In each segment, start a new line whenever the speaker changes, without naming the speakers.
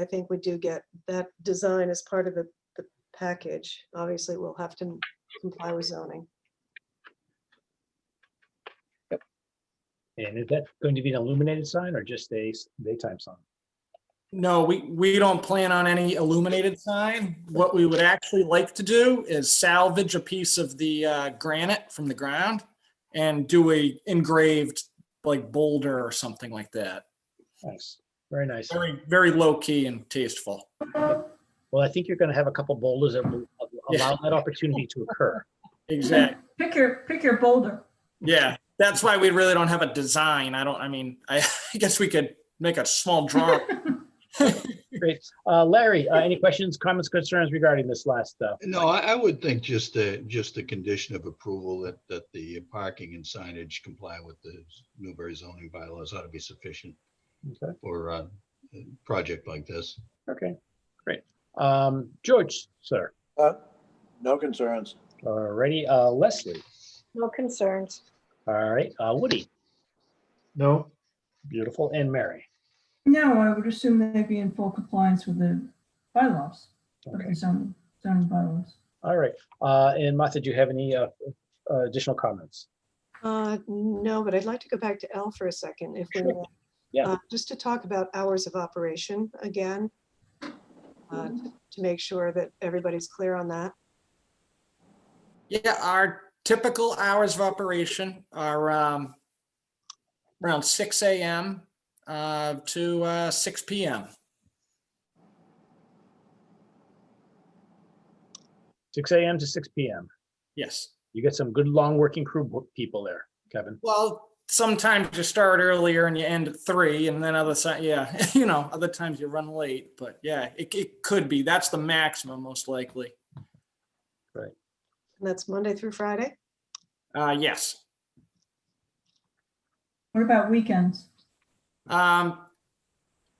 I think we do get that design as part of the, the package. Obviously, we'll have to comply with zoning.
And is that going to be an illuminated sign or just a s- daytime sign?
No, we, we don't plan on any illuminated sign. What we would actually like to do is salvage a piece of the uh, granite from the ground and do a engraved like boulder or something like that.
Nice, very nice.
Very, very low key and tasteful.
Well, I think you're going to have a couple boulders that will allow that opportunity to occur.
Exactly.
Pick your, pick your boulder.
Yeah. That's why we really don't have a design. I don't, I mean, I I guess we could make a small drawing.
Great. Uh, Larry, uh, any questions, comments, concerns regarding this last stuff?
No, I, I would think just the, just the condition of approval that, that the parking and signage comply with the Newbury zoning bylaws ought to be sufficient
Okay,
for uh, a project like this.
okay, great. Um, George, sir,
Uh, No concerns.
alrighty, uh, Leslie,
No concerns.
all right, uh, Woody,
No,
beautiful, and Mary.
No, I would assume they'd be in full compliance with the bylaws, of
Okay,
the zoning, zoning bylaws.
all right. Uh, and Martha, do you have any, uh, uh, additional comments?
Uh, no, but I'd like to go back to L for a second if we
Sure.
may.
Yeah.
Uh, Just to talk about hours of operation again. uh, To make sure that everybody's clear on that.
Yeah, our typical hours of operation are um, around six AM uh, to uh, six PM.
Six AM to six PM.
Yes.
You get some good, long working crew wo- people there, Kevin.
Well, sometimes you start earlier and you end at three and then other side, yeah, you know, other times you run late, but yeah, it, it could be. That's the maximum most likely.
And that's Monday through Friday.
Uh, yes.
What about weekends?
Um,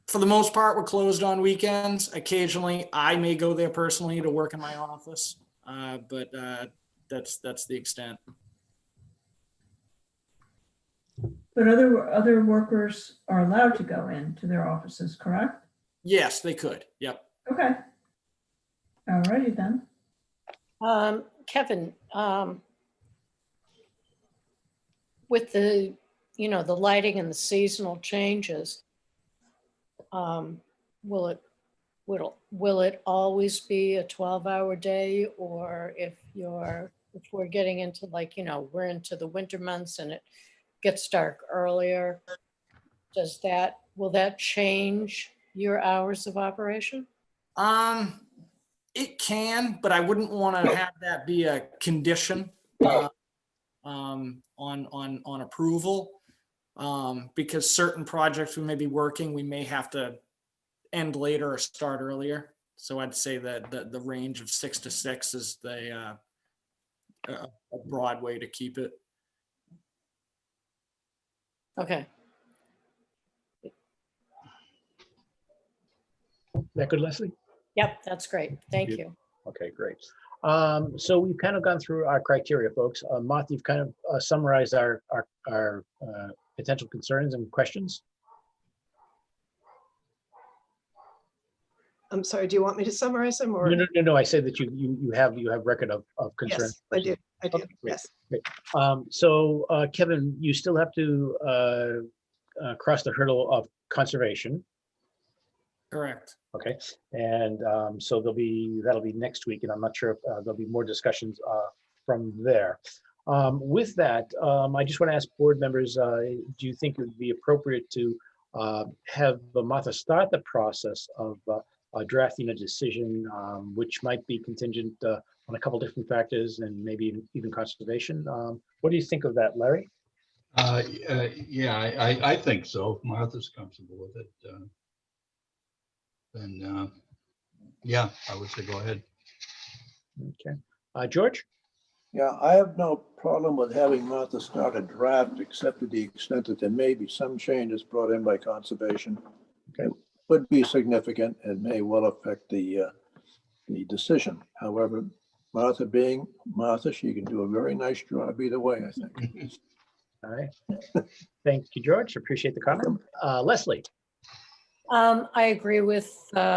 for the most part, we're closed on weekends. Occasionally, I may go there personally to work in my office, uh, but uh, that's, that's the extent.
But other, other workers are allowed to go into their offices, correct?
Yes, they could. Yep.
Okay. Alrighty then.
Um, Kevin, um, with the, you know, the lighting and the seasonal changes, um, will it, will, will it always be a twelve-hour day? Or if you're, if we're getting into like, you know, we're into the winter months and it gets dark earlier, does that, will that change your hours of operation?
Um, it can, but I wouldn't want to have that be a condition uh, um, on, on, on approval. Um, because certain projects we may be working, we may have to end later or start earlier. So I'd say that the, the range of six to six is the uh, a a broad way to keep it.
Okay,
That good, Leslie?
yep, that's great. Thank you.
Okay, great. Um, so we've kind of gone through our criteria, folks. Uh, Martha, you've kind of uh, summarized our, our, our, uh, potential concerns and questions.
I'm sorry, do you want me to summarize them or?
No, no, no, no, I say that you, you, you have, you have record of, of concern.
Yes, I do, I do,
Okay, great.
yes.
Um, so, uh, Kevin, you still have to, uh, uh, cross the hurdle of conservation.
Correct.
Okay, and um, so there'll be, that'll be next week, and I'm not sure if uh, there'll be more discussions uh, from there. Um, With that, um, I just want to ask board members, uh, do you think it would be appropriate to uh, have Martha start the process of uh, uh, drafting a decision, um, which might be contingent uh, on a couple different factors and maybe even conservation? Um, What do you think of that, Larry?
Uh, uh, Yeah, I, I- I think so. If Martha's comfortable with it. uh, Then, uh, yeah, I would say go ahead.
Okay, Uh, George?
Yeah, I have no problem with having Martha start a draft, except to the extent that there may be some changes brought in by conservation.
Okay.
Would be significant and may well affect the, uh, the decision. However, Martha being Martha, she can do a very nice job either way, I think.
All right. Thank you, George. Appreciate the comment. Uh, Leslie?
Um, I agree with, uh,